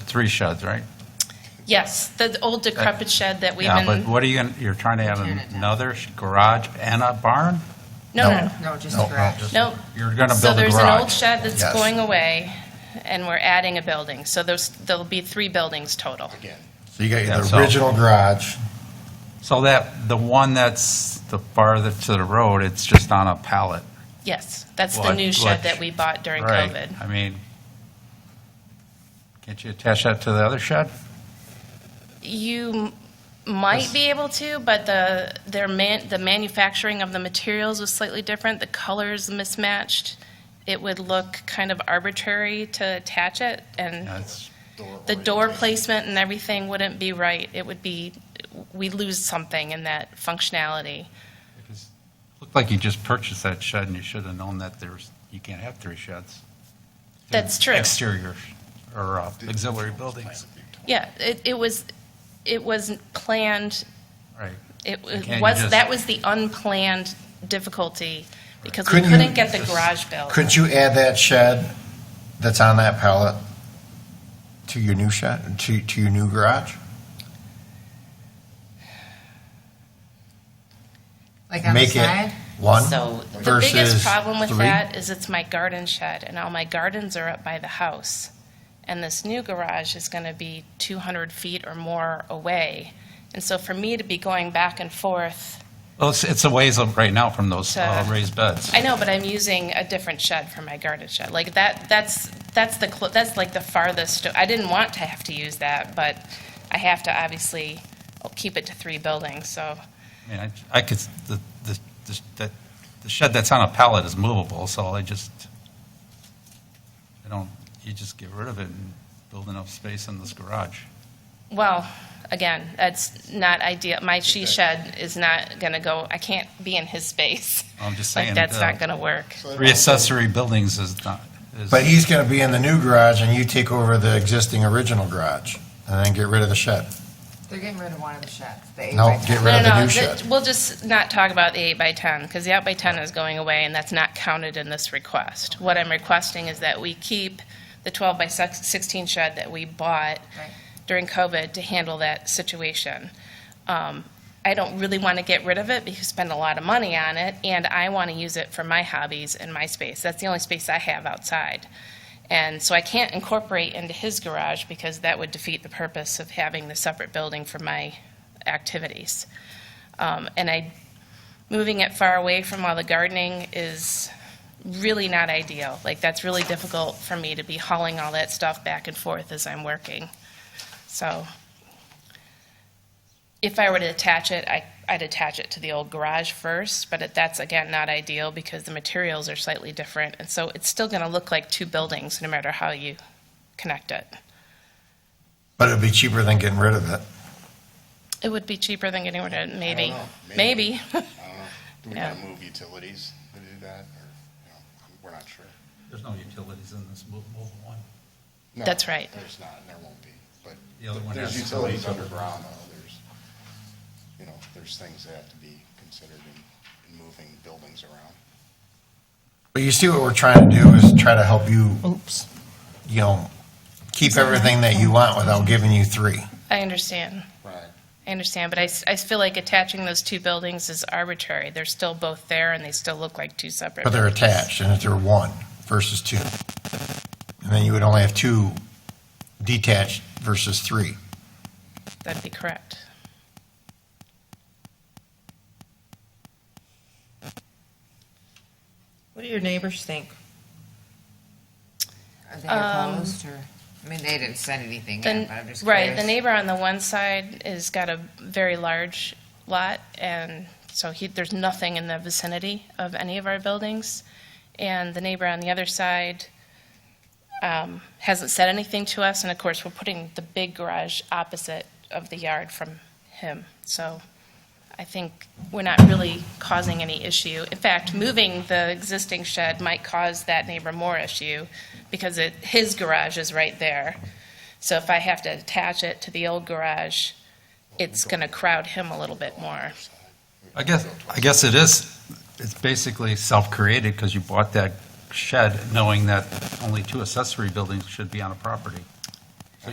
three sheds, right? Yes, the old decrepit shed that we've Yeah, but been, what are you, gonna- you're trying to have another sh- garage and a barn? no, no, no. No, just No, a no, garage. just- Nope. You're going to So build a there's an old garage. shed that's Yes. going away, and we're adding a building. So there's, there'll be three buildings total. So you got That's the all. original garage, So that, the one that's the farthest to the road, it's just on a pallet. Yes, that's the What- new what- shed that we bought during Right. COVID. I mean, can't you attach that to the other shed? You m- might be able to, but the, their man, the manufacturing of the materials was slightly different. The colors mismatched. It would look kind of arbitrary to attach it, Yeah, and it's- the door placement and everything wouldn't be right. It would be, we lose something in that functionality. Looked like you just purchased that shed and you should have known that there's, you can't have three sheds. That's true. Exterior or uh, auxiliary buildings. Yeah, it, it was, it wasn't planned, Right. it can't you was, just- that was the unplanned difficulty, because we Couldn't you couldn't get the just- garage built. couldn't you add that shed that's on that pallet to your new shed, to, to your new garage? Like on the Make it side? one So the biggest versus problem with three? that is it's my garden shed, and all my gardens are up by the house. And this new garage is going to be 200 feet or more away. And so for me to be going back and forth, Well, it's, it's a ways up right now from those uh, To- raised beds. I know, but I'm using a different shed for my garden shed. Like that, that's, that's the, clo- that's like the farthest, I didn't want to have to use that, but I have to obviously keep it to three buildings, so. I mean, I, I could, the, the, the- that, the shed that's on a pallet is movable, so I just, I don't, you just get rid of it and build enough space in this garage. Well, again, that's not ideal. My she shed is not going to go, I can't be in his space. I'm just Like, saying, that's uh, not going to work. Three accessory buildings is not, is. But he's gonna be in the new garage and you take over the existing original garage and then get rid of the shed. They're getting rid of one of the sheds, the eight No, by get ten. rid No, of the no, new no, shed. we'll just not talk about the eight by 10, because the eight by 10 is going away, and that's not counted in this request. What I'm requesting is that we keep the 12 by sex- 16 shed that we bought Right. during COVID to handle that situation. Um, I don't really want to get rid of it because I spend a lot of money on it, and I want to use it for my hobbies and my space. That's the only space I have outside. And so I can't incorporate into his garage because that would defeat the purpose of having the separate building for my activities. Um, And I, moving it far away from all the gardening is really not ideal. Like, that's really difficult for me to be hauling all that stuff back and forth as I'm working. So if I were to attach it, I, I'd attach it to the old garage first, but it- that's, again, not ideal because the materials are slightly different. And so it's still going to look like two buildings, no matter how you connect it. But it'd be cheaper than getting rid of it. It would be cheaper than getting rid of it, maybe. know, maybe. Maybe. I don't know. Do we Yeah. gotta move utilities to do that, or, you know, we're not sure. There's no utilities in this movable one. No, That's right. There's not, and there won't be, but The other one there's has- utilities underground, though, there's, you know, there's things that have to be considered in, in moving buildings around. But you see what we're trying to do is try to help you, oops, you know, keep everything that you want without giving you three. I understand. Right. I understand, but I, s- I feel like attaching those two buildings is arbitrary. They're still both there, and they still look like two separate. But they're buildings. attached and if they're one versus two. And then you would only have two detached versus three. That'd be correct. What do your neighbors think? Are they opposed Um, or, I mean, they didn't send anything The- in, but I'm just right, curious. the neighbor on the one side has got a very large lot, and so he, there's nothing in the vicinity of any of our buildings. And the neighbor on the other side um, hasn't said anything to us, and of course, we're putting the big garage opposite of the yard from him. So I think we're not really causing any issue. In fact, moving the existing shed might cause that neighbor more issue because it, his garage is right there. So if I have to attach it to the old garage, it's going to crowd him a little bit more. I guess, I guess it is, it's basically self-created because you bought that shed knowing that only two accessory buildings should be on a property.